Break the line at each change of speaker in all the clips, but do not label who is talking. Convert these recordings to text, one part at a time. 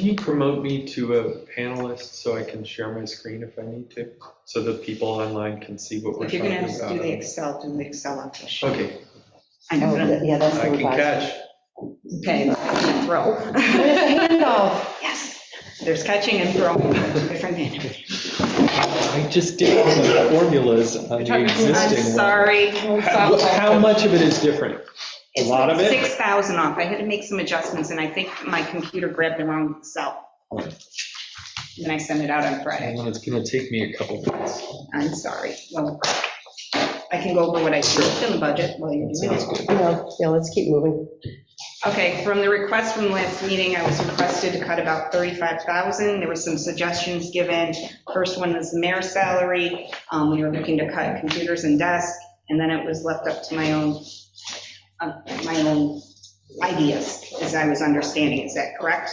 you promote me to a panelist so I can share my screen if I need to? So that people online can see what we're
If
talking
you're
about?
gonna have to do
um,
the Excel, do the Excel on this.
Okay,
I
Oh,
know, but I'm-
that- Yeah, that's the
I can
revised.
catch.
okay, throw.
Where's the handoff?
Yes, there's catching and throwing, different hand.
I just did all the formulas on the existing one.
I'm sorry.
How how much of it is different? A lot of it?
Six thousand off, I had to make some adjustments, and I think my computer grabbed the wrong cell. Then I sent it out on Friday,
Well, It's going to take me a couple minutes.
I'm sorry. Well, I can go over what I switched in the budget while you're doing
Sounds
it.
good.
No, yeah, let's keep moving.
Okay, from the request from last meeting, I was requested to cut about 35,000. There were some suggestions given. First one was the mayor's salary. Um, We were looking to cut computers and desk, and then it was left up to my own, uh, my own ideas, as I was understanding. Is that correct?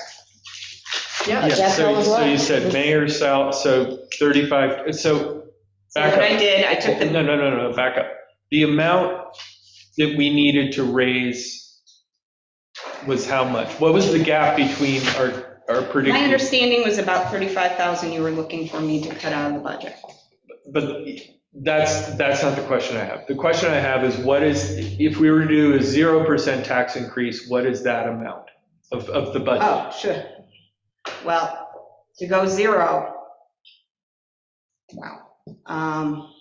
Yeah,
Yeah,
that's all
so,
it
so you
was.
said mayor sal, so 35, so
So
back
what I
up.
did, I took the,
No, no, no, no, back up. The amount that we needed to raise was how much? What was the gap between our, our
my
predicted?
understanding was about 35,000 you were looking for me to cut out of the budget.
But that's, that's not the question I have. The question I have is what is, if we were to do a 0% tax increase, what is that amount of, of the budget?
Oh, sure. Well, to go zero, wow, um,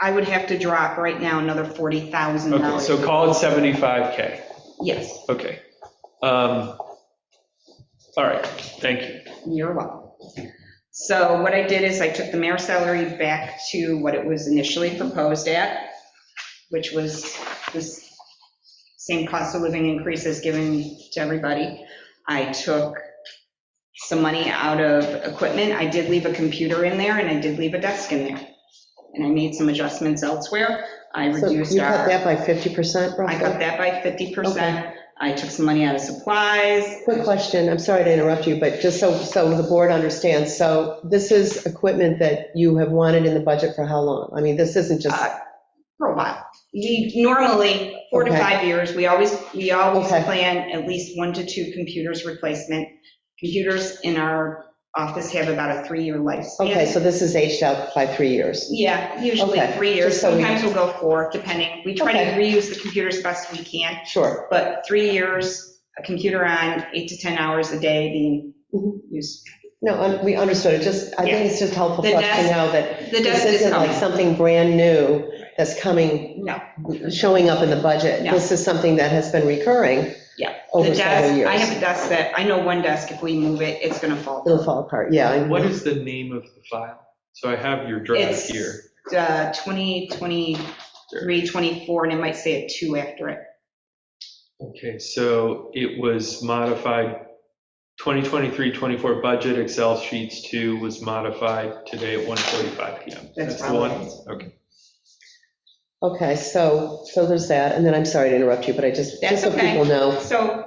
I would have to drop right now another
Okay, so
$40,000.
call it 75K.
Yes,
Okay. Um, All right, thank you.
you're welcome. So what I did is I took the mayor's salary back to what it was initially proposed at, which was this same cost of living increases given to everybody. I took some money out of equipment. I did leave a computer in there and I did leave a desk in there. And I made some adjustments elsewhere. I
So you
reduced
cut
our,
that by 50%
I cut
roughly?
that by 50%.
Okay.
I took some money out of supplies.
Quick question, I'm sorry to interrupt you, but just so, so the board understands, so this is equipment that you have wanted in the budget for how long? I mean, this isn't just,
Uh, for a while. We normally, four to
Okay.
five years, we always, we always
Okay.
plan at least one to two computers replacement. Computers in our office have about a three-year lifespan.
okay, so this is aged out by three years.
Yeah, usually
Okay,
three years,
just so we-
sometimes we'll go four, depending. We try to
Okay.
reuse the computers best we can,
Sure,
but three years, a computer on, eight to 10 hours a day being
Mhm.
used.
no, un- we understood, it just, I think it's just helpful
The
for us to
desk-
know that
The
this
desk is
isn't like
coming.
something brand new that's coming,
No,
showing up in the budget.
No.
This is something that has been recurring
Yeah. the
over several
desk, I
years.
have a desk that, I know one desk, if we move it, it's going to fall.
It'll fall apart, yeah. I-
What is the name of the file? So I have your drive
It's
here.
uh, 2023, 24, and it might say a 2 after it.
Okay, so it was modified, 2023, 24 budget Excel sheets two was modified today at 1:45 PM.
That's
the one?
probably.
Okay.
Okay, so, so there's that, and then I'm sorry to interrupt you, but I just,
That's
just so
okay.
people know.
So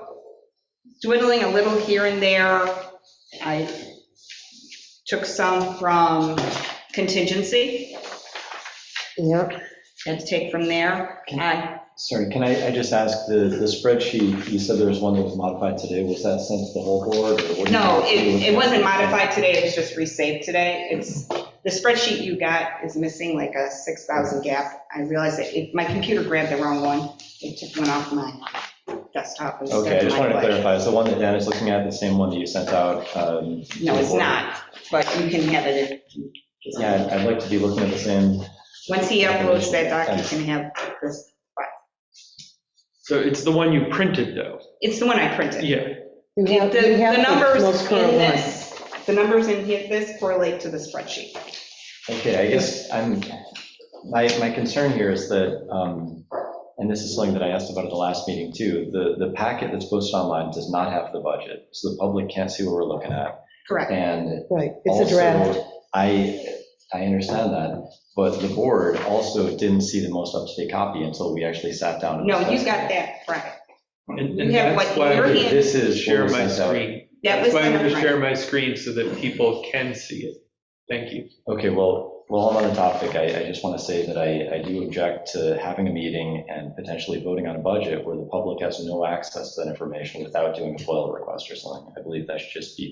dwindling a little here and there, I took some from contingency,
Yeah,
had to take from there. Uh, I-
Sorry, can I, I just ask, the, the spreadsheet, you said there was one that was modified today, was that sent to the whole board? or what do you-
No, it, it wasn't modified today, it was just resaved today. It's, the spreadsheet you got is missing like a 6,000 gap. I realized that it- my computer grabbed the wrong one, it took one off my desktop instead of my.
Okay, I just wanted to
flash.
clarify, is the one that Dan is looking at the same one that you sent out? um, to
No,
the
it's
board?
not, but you can have it. if you-
Yeah, I'd- I'd like to be looking at the same,
Once he uploads that doc, you can have this.
So it's the one you printed, though?
It's the one I printed.
Yeah.
you
The
have- you have
the numbers
most current
in
one.
this, the numbers in here, this correlate to the spreadsheet.
okay, I guess I'm, my, my concern here is that, um, and this is something that I asked about at the last meeting too, the, the packet that's posted online does not have the budget, so the public can't see what we're looking at.
Correct.
And
Right, it's a draft.
Also, I, I understand that, but the board also didn't see the most up-to-date copy until we actually sat down. and
No, you
discussed
got
it.
that, right.
And
You
and
have
that's
what
why
your
I'm
hand-
going
This
to
is.
share
what
my
was sent out.
screen.
That
That's
was
why I'm going to
the-
share my screen so that people can see it. Thank you.
Okay, well, while I'm on the topic, I, I just want to say that I, I do object to having a meeting and potentially voting on a budget where the public has no access to that information without doing a FOIL request or something. I believe that should just be